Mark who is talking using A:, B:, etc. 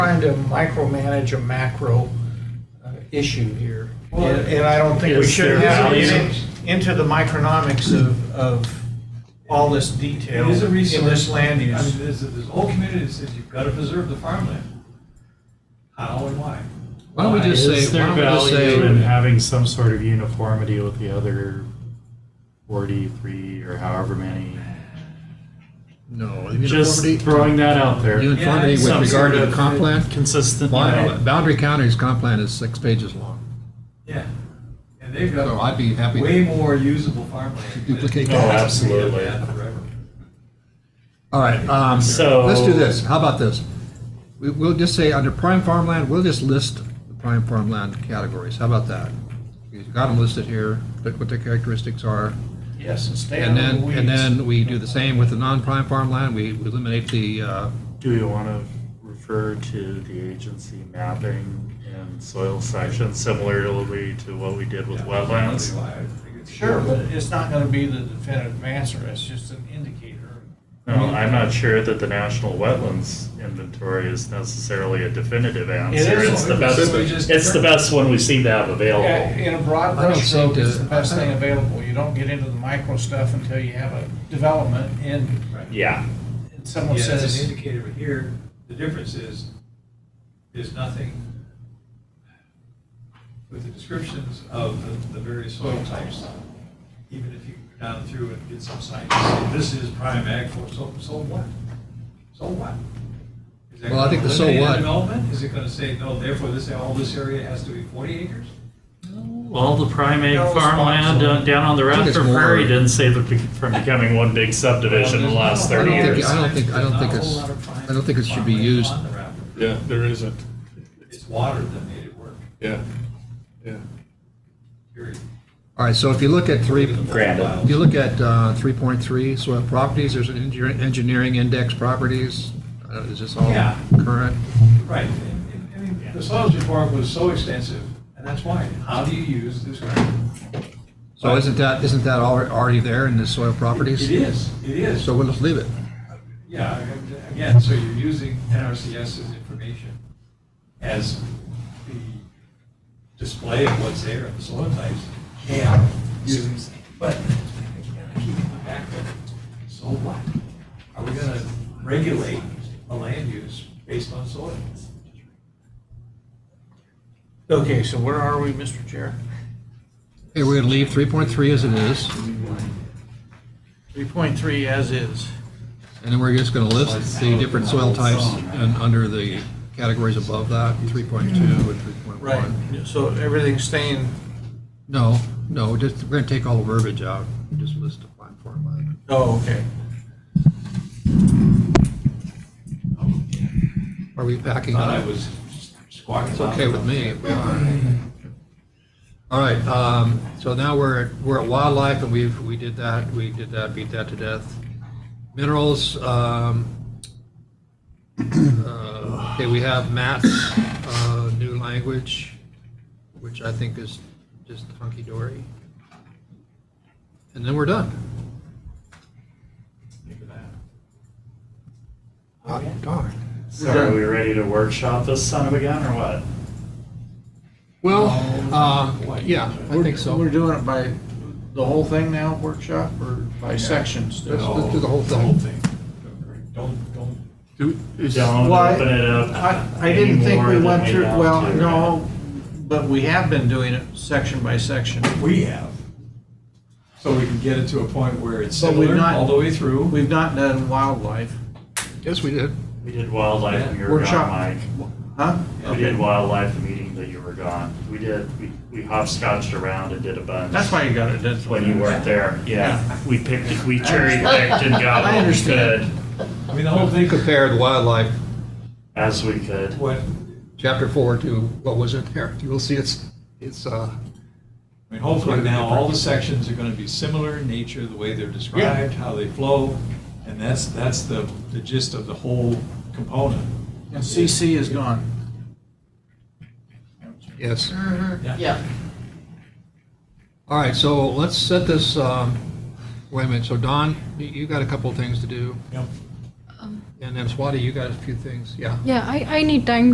A: trying to micromanage a macro uh, issue here.
B: Well,
A: And and I don't think we
C: is
A: should
C: there
A: have
C: value?
A: it into the micronomics of, of all this detail
B: It is a
A: in
B: resource.
A: this land
B: I mean,
A: use.
B: there's, there's a whole community that says you've got to preserve the farmland. How and why?
D: Why don't we just say,
C: Is there
D: why don't we just
C: value in
D: say,
C: having some sort of uniformity with the other forty-three or however many?
D: no,
C: Just
D: uniformity,
C: throwing that out there.
D: uniformity with
C: Some
D: regard to
C: sort
D: the
C: of
D: comp plan?
C: Consistent, you
D: Boundary-
C: know,
D: Boundary County's comp plan is six pages long,
B: Yeah. And they've
D: so
B: got
D: I'd be happy
B: way
D: to
B: more usable farmland. than-
D: duplicate
C: Oh,
D: that.
C: absolutely.
B: Yeah, forever.
D: All right, um,
C: So-
D: let's do this. How about this? We, we'll just say, under prime farmland, we'll just list the prime farmland categories. How about that? You've got them listed here, look what their characteristics are.
C: yes, and stay out
D: And
C: of
D: then,
C: the
D: and then
C: weeds.
D: we do the same with the non-prime farmland. We we eliminate the, uh,
C: Do we want to refer to the agency mapping and soil section similarly to what we did with
B: Yeah,
C: wetlands?
B: why I think it's-
A: Sure, but it's not going to be the definitive answer, it's just an indicator.
C: No, I'm not sure that the national wetlands inventory is necessarily a definitive answer.
A: is.
C: It's the best,
B: Simply just-
C: it's the best one we seem to have available.
A: In a broad
D: I don't
A: brushstroke,
D: think
A: it's
D: that-
A: the best thing available. You don't get into the micro stuff until you have a development and
B: Right.
C: Yeah,
A: and someone
B: Yeah,
A: says.
B: As an indicator here, the difference is, there's nothing with the descriptions of the- the various soil types, even if you go down through and get some science, say, this is prime ag for, so, so what? So what? Is that
D: Well, I think the
B: gonna
D: so
B: eliminate
D: what-
B: Development, is it gonna say, no, therefore this, all this area has to be forty acres?
C: all the primate
A: No
C: farmland
A: response.
C: uh, down on the
D: I think it's
C: Radford
D: more-
C: Prairie didn't save it bec- from becoming one big subdivision in the last
D: I don't
C: thirty
D: think-
C: years.
D: I don't think- I don't think
B: There's
D: it's-
B: not a whole lot of prime
D: I don't think it should be
B: farmland
D: used.
B: on the Raptor.
E: Yeah, there isn't.
B: It's water that made it work,
E: Yeah, yeah.
B: period.
D: all right, so if you look at three,
C: Granted.
D: If you look at uh, 3.3 soil properties, there's an engineer- engineering index properties. Uh, Is this all
B: Yeah.
D: current?
B: Right, and- and- I mean, the soils report was so extensive, and that's why, how do you use this ground?
D: So isn't that, isn't that al- already there in the soil properties?
B: It is, it is,
D: So we'll just leave it.
B: yeah, and again, so you're using NRCS's information as the display of what's there, of the soil types, and using, but, again, I keep coming back to, so what? Are we gonna regulate a land use based on soil?
A: Okay, so where are we, Mr. Chair?
D: Okay, we're going to leave 3.3 as it is,
A: Three point three as is.
D: and then we're just going to list the different soil types and under the categories above that, 3.2 and 3.1.
A: So everything's staying,
D: No, no, just, we're going to take all the verbiage out, and just list the prime farmland.
A: oh, okay.
D: Are we packing
B: Thought
D: up?
B: I was squawking.
D: It's okay with me. All right, um, so now we're, at- we're at wildlife and we've, we did that, we did that, beat that to death. Minerals, um, uh, okay, we have Matt's, uh, new language, which I think is just hunky-dory. And then we're done.
B: Think of that.
D: Hot darn.
C: So are we ready to workshop this son of a gun or what?
D: Well, uh, yeah, I think so.
A: We're doing it by the whole thing now, workshop, or by sections
D: Let's,
A: still?
D: let's do the whole thing.
B: Don't, don't
E: Do- is-
C: Don't
A: Well, I-
C: open it up.
A: I, I didn't think
C: anymore
A: we
C: than
A: went through,
C: have
A: well,
C: to,
A: no, but we have been doing it section by section.
B: we have. So we can get it to a point where it's
A: But we've
B: similar
A: not-
B: all the way through.
A: We've not done wildlife.
D: Yes, we did.
C: We did wildlife and you were
A: Workshop.
C: gone,
A: Huh?
C: Mike. We
A: Okay.
C: did wildlife the meeting that you were gone. We did, we, we hopscotched around and did a bunch.
A: That's why you got it, that's why
C: When you weren't there, yeah. We picked, we cherry picked and got
A: I
C: what we could,
A: understand.
B: I mean, the whole
D: We
B: thing,
D: compared wildlife,
C: as we could.
B: what, I
D: chapter four, to what was in there. You'll see it's, it's, uh,
B: mean, hopefully now all the sections are gonna be similar in nature, the way they're described, how they flow. And that's, that's the, the gist of the whole component.
A: And CC is gone.
D: yes.
F: Yeah.
D: All right, so let's set this, um, wait a minute. So Don, you- you got a couple of things to do.
B: Yep.
D: And then Swati, you got a few things. Yeah.
G: Yeah, I, I need time